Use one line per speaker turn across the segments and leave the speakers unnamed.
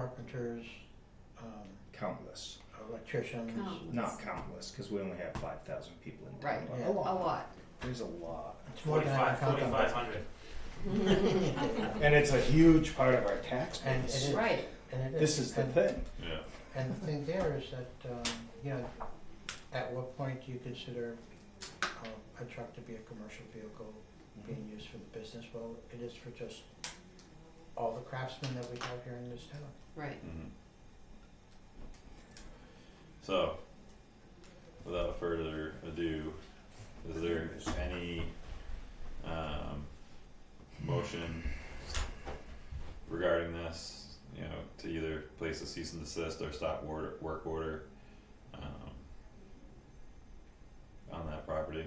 carpenters, um,
countless,
electricians.
Countless.
not countless, because we only have five thousand people in town.
Right.
but
Yeah.
A
a
lot.
lot.
There's a lot,
It's more than I
Forty-five,
can count on.
forty-five hundred.
and it's a huge part of our tax
And it
base.
is.
Right,
And it
This
is,
is the
and-
thing.
Yeah.
And the thing there is that, um, you know, at what point do you consider um, a truck to be a commercial vehicle being used for the business? Well, it is for just all the craftsmen that we have here in this town.
right.
hmm So, without further ado, is there any um, motion regarding this? You know, to either place a cease and desist or stop order, work order um, on that property.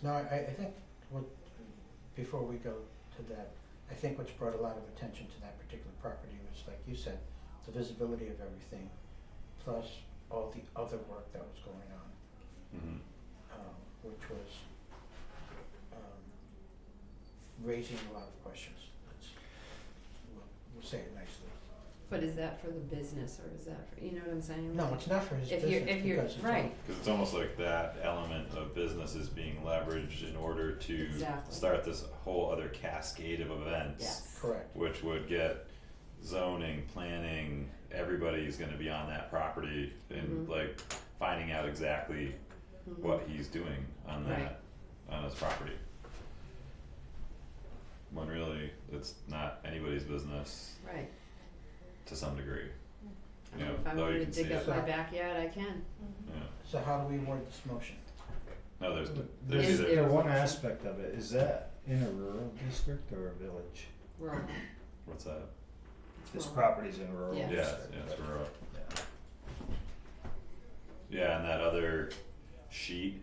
No, I, I think what, before we go to that, I think what's brought a lot of attention to that particular property was, like you said, the visibility of everything, plus all the other work that was going on.
hmm
um, which was um, raising a lot of questions. Let's, we'll, we'll say it nicely.
But is that for the business or is that for, you know what I'm saying?
No, it's not for his
If
business
you're, if you're,
because it's
right,
Because it's almost like that element of business is being leveraged in order to
Exactly.
start this whole other cascade of events.
yes.
correct.
Which would get zoning, planning, everybody's gonna be on that property and
Mhm.
like finding out exactly
Mhm.
what he's doing on
Right.
that, on his property. When really, it's not anybody's business
Right.
to some degree,
I
Yeah,
mean, Mm. if I
though you
wanted
can
to dig
see
up
it.
my backyard, I can.
yeah,
So how do we word this motion?
no, there's,
But
there's
Is
either.
there-
The one aspect of it, is that in a rural district or a village?
Rural.
What's that?
It's
This
rural.
property's in a rural
Yeah.
Yeah,
district.
yeah, it's rural.
Yeah.
Yeah, and that other sheet,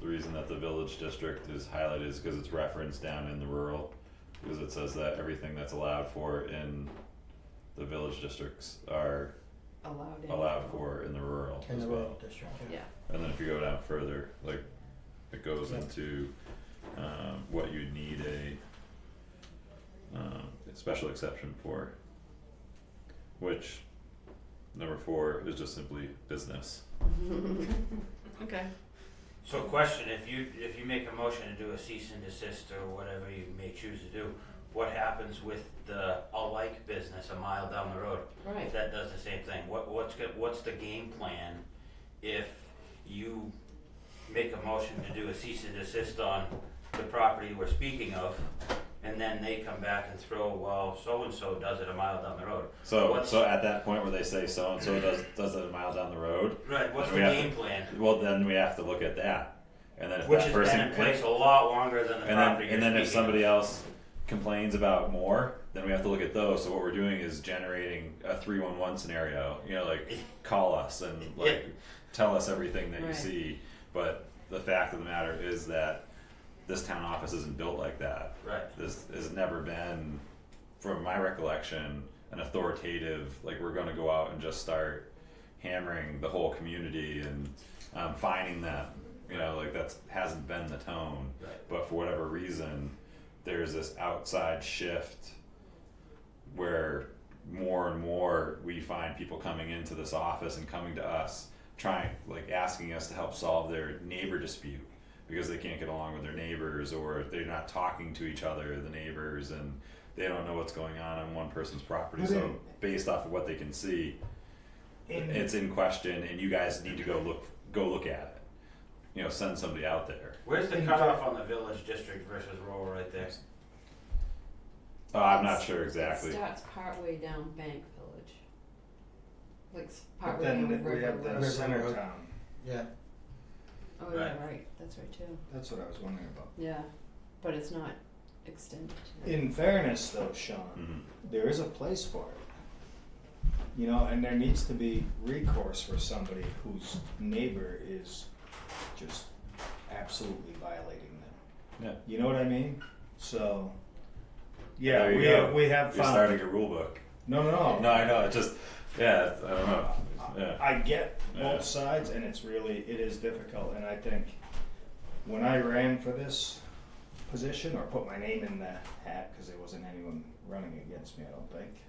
the reason that the village district is highlighted is because it's referenced down in the rural. Because it says that everything that's allowed for in the village districts are
Allowed in.
allowed for in the rural
In
as
the
well.
rural district.
Yeah,
And then if you go down further, like, it goes into, um, what you need a, um, special exception for. Which, number four is just simply business.
okay.
So question, if you, if you make a motion to do a cease and desist or whatever you may choose to do, what happens with the alike business a mile down the road?
Right.
If that does the same thing, what, what's, go- what's the game plan if you make a motion to do a cease and desist on the property we're speaking of? And then they come back and throw, well, so-and-so does it a mile down the road.
So
What's-
so at that point where they say so and so does does it a mile down the road,
Right, what's
We
the
have to-
game plan?
well then we have to look at that, and then if
Which
that
has
person
been in place a lot longer than the
and then
property
and
you're
then if
speaking of.
somebody else complains about more, then we have to look at those. So what we're doing is generating a three one one scenario. You know, like call us and like tell us everything that you
Right.
see. But the fact of the matter is that this town office isn't built like that.
Right.
This has never been, from my recollection, an authoritative like we're going to go out and just start hammering the whole community and um, finding them. You know, like that's hasn't been the tone.
Right.
But for whatever reason, there's this outside shift where more and more we find people coming into this office and coming to us trying like asking us to help solve their neighbor dispute because they can't get along with their neighbors or they're not talking to each other the neighbors and they don't know what's going on on one person's property
But
so
in-
based off of what they can see
In-
it's in question and you guys need to go look go look at it you know send somebody out there
Where's the
In
cutoff on the village district versus rural right there?
oh, i'm not
It's-
sure exactly
It starts partway down Bank Village. Like s-
But
partway down
then we
River
have
Road.
the
River
center
Road.
town,
Yeah,
Oh, yeah,
Right.
right, that's right too.
that's what I was wondering about.
Yeah, but it's not extended to that.
In fairness though, Sean,
Mhm.
there is a place for it. You know, and there needs to be recourse for somebody whose neighbor is just absolutely violating them.
yeah
You know what I mean? So, yeah,
There you
we
go.
have, we have
you're
found.
starting a rule book
No, no,
No, I know. It's just, yeah, it's- I don't know. Yeah.
I get both
Yeah.
sides, and it's really it is difficult. And I think when I ran for this position or put my name in the hat, because there wasn't anyone running against me, I don't think.